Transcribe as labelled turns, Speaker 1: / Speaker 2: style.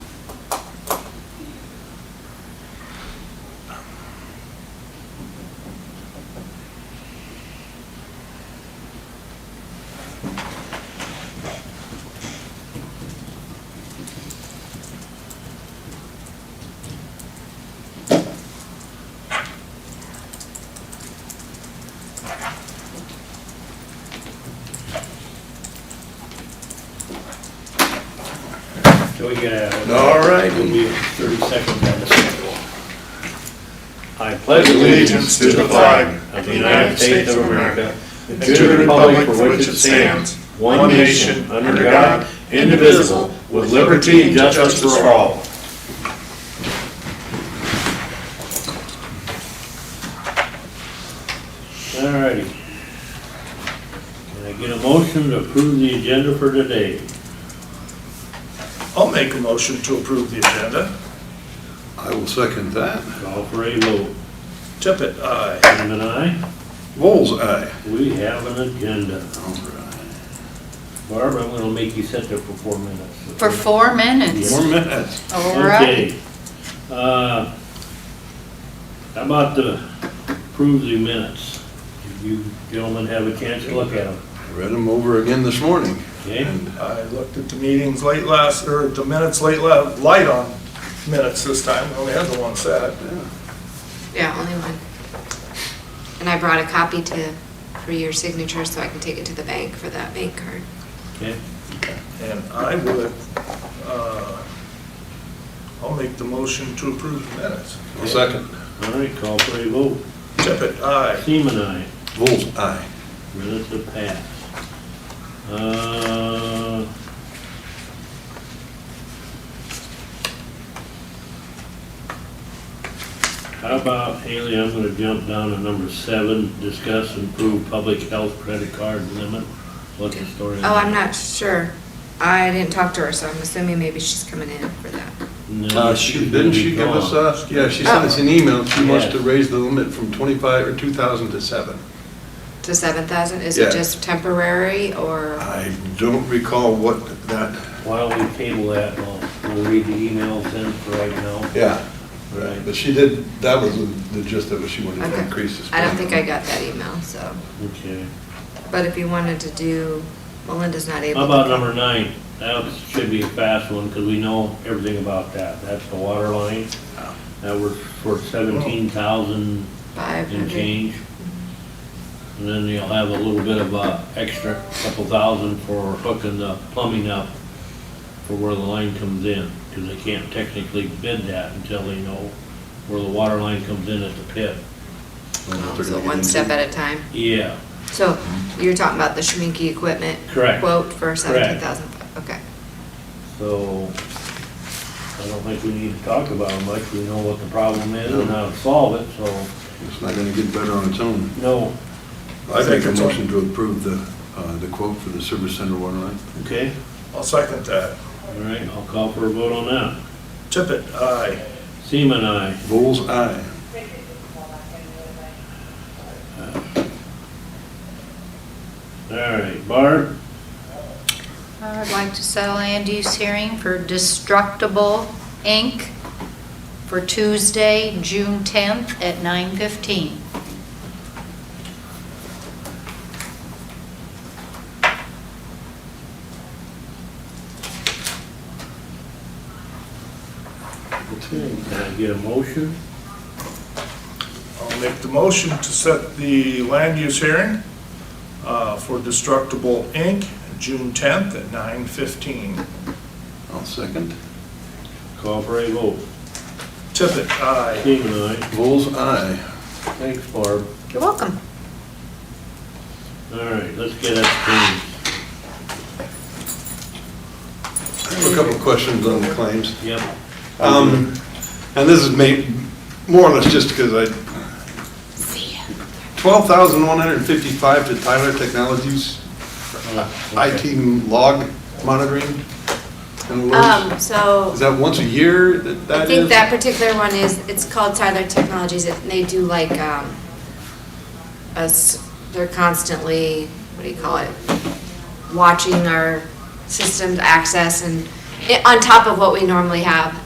Speaker 1: we got.
Speaker 2: All right.
Speaker 1: It'll be thirty seconds on the schedule. I pledge
Speaker 2: Allegiance to the flag
Speaker 1: of the United States of America and
Speaker 2: to the republic for which it stands,
Speaker 1: one nation, under God, indivisible, with liberty and justice for all. All righty. Can I get a motion to approve the agenda for today?
Speaker 3: I'll make a motion to approve the agenda.
Speaker 2: I will second that.
Speaker 1: Call for a vote.
Speaker 3: Tippit, aye.
Speaker 1: Tim and I,
Speaker 2: Vols aye.
Speaker 1: we have an agenda.
Speaker 2: All right.
Speaker 1: Barb, I'm gonna make you sit there for four minutes.
Speaker 4: For four minutes?
Speaker 2: Four minutes.
Speaker 4: All right.
Speaker 1: Okay. Uh, How about to approve the minutes? Did you gentlemen have a chance to look at them?
Speaker 2: I Read them over again this morning.
Speaker 1: Okay?
Speaker 3: I looked at the meetings late last, or the minutes late la, light on minutes this time, we only had the one set.
Speaker 5: Yeah, only one. And I brought a copy to, for your signature, so I can take it to the bank for that bank card.
Speaker 1: Okay.
Speaker 3: And I would, uh, I'll make the motion to approve the minutes.
Speaker 2: I'll second.
Speaker 1: All right, call for a vote.
Speaker 3: Tippit, aye.
Speaker 1: Seaman, aye.
Speaker 2: Vols aye.
Speaker 1: Minutes have passed. Uh, How about, Haley, I'm gonna jump down to number seven, discuss and approve public health credit card limit. What's the story on
Speaker 5: Oh, I'm
Speaker 1: that?
Speaker 5: not sure. I didn't talk to her, so I'm assuming maybe she's coming in for that.
Speaker 1: No,
Speaker 2: Uh, she, didn't she give us,
Speaker 1: gone.
Speaker 2: uh, yeah, she sent us an email. She wants to
Speaker 1: Yes.
Speaker 2: raise the limit from 25, or 2,000 to 7.
Speaker 5: To seven thousand, is
Speaker 2: Yeah. Uh,
Speaker 5: it just temporary or?
Speaker 2: I don't recall what that,
Speaker 1: Why don't we table that, we'll, we'll read the emails in for right now.
Speaker 2: yeah,
Speaker 1: Right,
Speaker 2: but she did, that was the- the gist of it. She wanted to
Speaker 5: Okay.
Speaker 2: increase this.
Speaker 5: I don't think I got that email, so,
Speaker 1: okay.
Speaker 5: but if you wanted to do, Melinda's not able.
Speaker 1: How
Speaker 5: to
Speaker 1: about number nine? That was- should be a fast one, because we know everything about that. That's the water line.
Speaker 2: Oh.
Speaker 1: That was for seventeen thousand
Speaker 5: Five
Speaker 1: and
Speaker 5: hundred.
Speaker 1: change. And then you'll have a little bit of a extra couple thousand for hooking the plumbing up for where the line comes in, because they can't technically bid that until they know where the water line comes in at the pit.
Speaker 2: think.
Speaker 5: Oh, So one step at a time.
Speaker 1: Yeah,
Speaker 5: So
Speaker 2: Mm-hmm.
Speaker 5: you're talking about the Schminke equipment
Speaker 1: correct.
Speaker 5: quote for seventeen thousand, okay.
Speaker 1: So, I don't think we need to talk about it much, we know what the problem is and how to solve it, so,
Speaker 2: It's not gonna get better on its own.
Speaker 1: no,
Speaker 2: I make a
Speaker 3: Second.
Speaker 2: motion to approve the, uh, the quote for the service center water line.
Speaker 1: okay?
Speaker 3: I'll second that.
Speaker 1: All right, I'll call for a vote on that.
Speaker 3: Tippit, aye.
Speaker 1: Seaman, aye.
Speaker 2: Vols aye.
Speaker 1: All right, Barb,
Speaker 4: I would like to settle land use hearing for Destructible Inc. for Tuesday, June 10th at 9:15.
Speaker 1: can I get a motion?
Speaker 3: I'll make the motion to set the land use hearing uh, for Destructible Inc., June 10th at 9:15.
Speaker 2: I'll second.
Speaker 1: Call for a vote.
Speaker 3: Tippit, aye.
Speaker 1: Seaman, aye.
Speaker 2: Vols aye.
Speaker 1: Thanks, Barb.
Speaker 5: You're welcome.
Speaker 1: All right, let's get up
Speaker 2: I have a couple of questions on the claims.
Speaker 1: to, yep,
Speaker 2: Um, and this is made, more or less just because I. Twelve thousand one hundred and fifty-five to Tyler Technologies IT log monitoring. and alerts.
Speaker 5: Um, so
Speaker 2: Is that once a year that
Speaker 5: I
Speaker 2: that is?
Speaker 5: think that particular one is, it's called Tyler Technologies, and they do like, um, us, they're constantly, what do you call it? eh, Watching our systems access and, it- on top of what we normally have.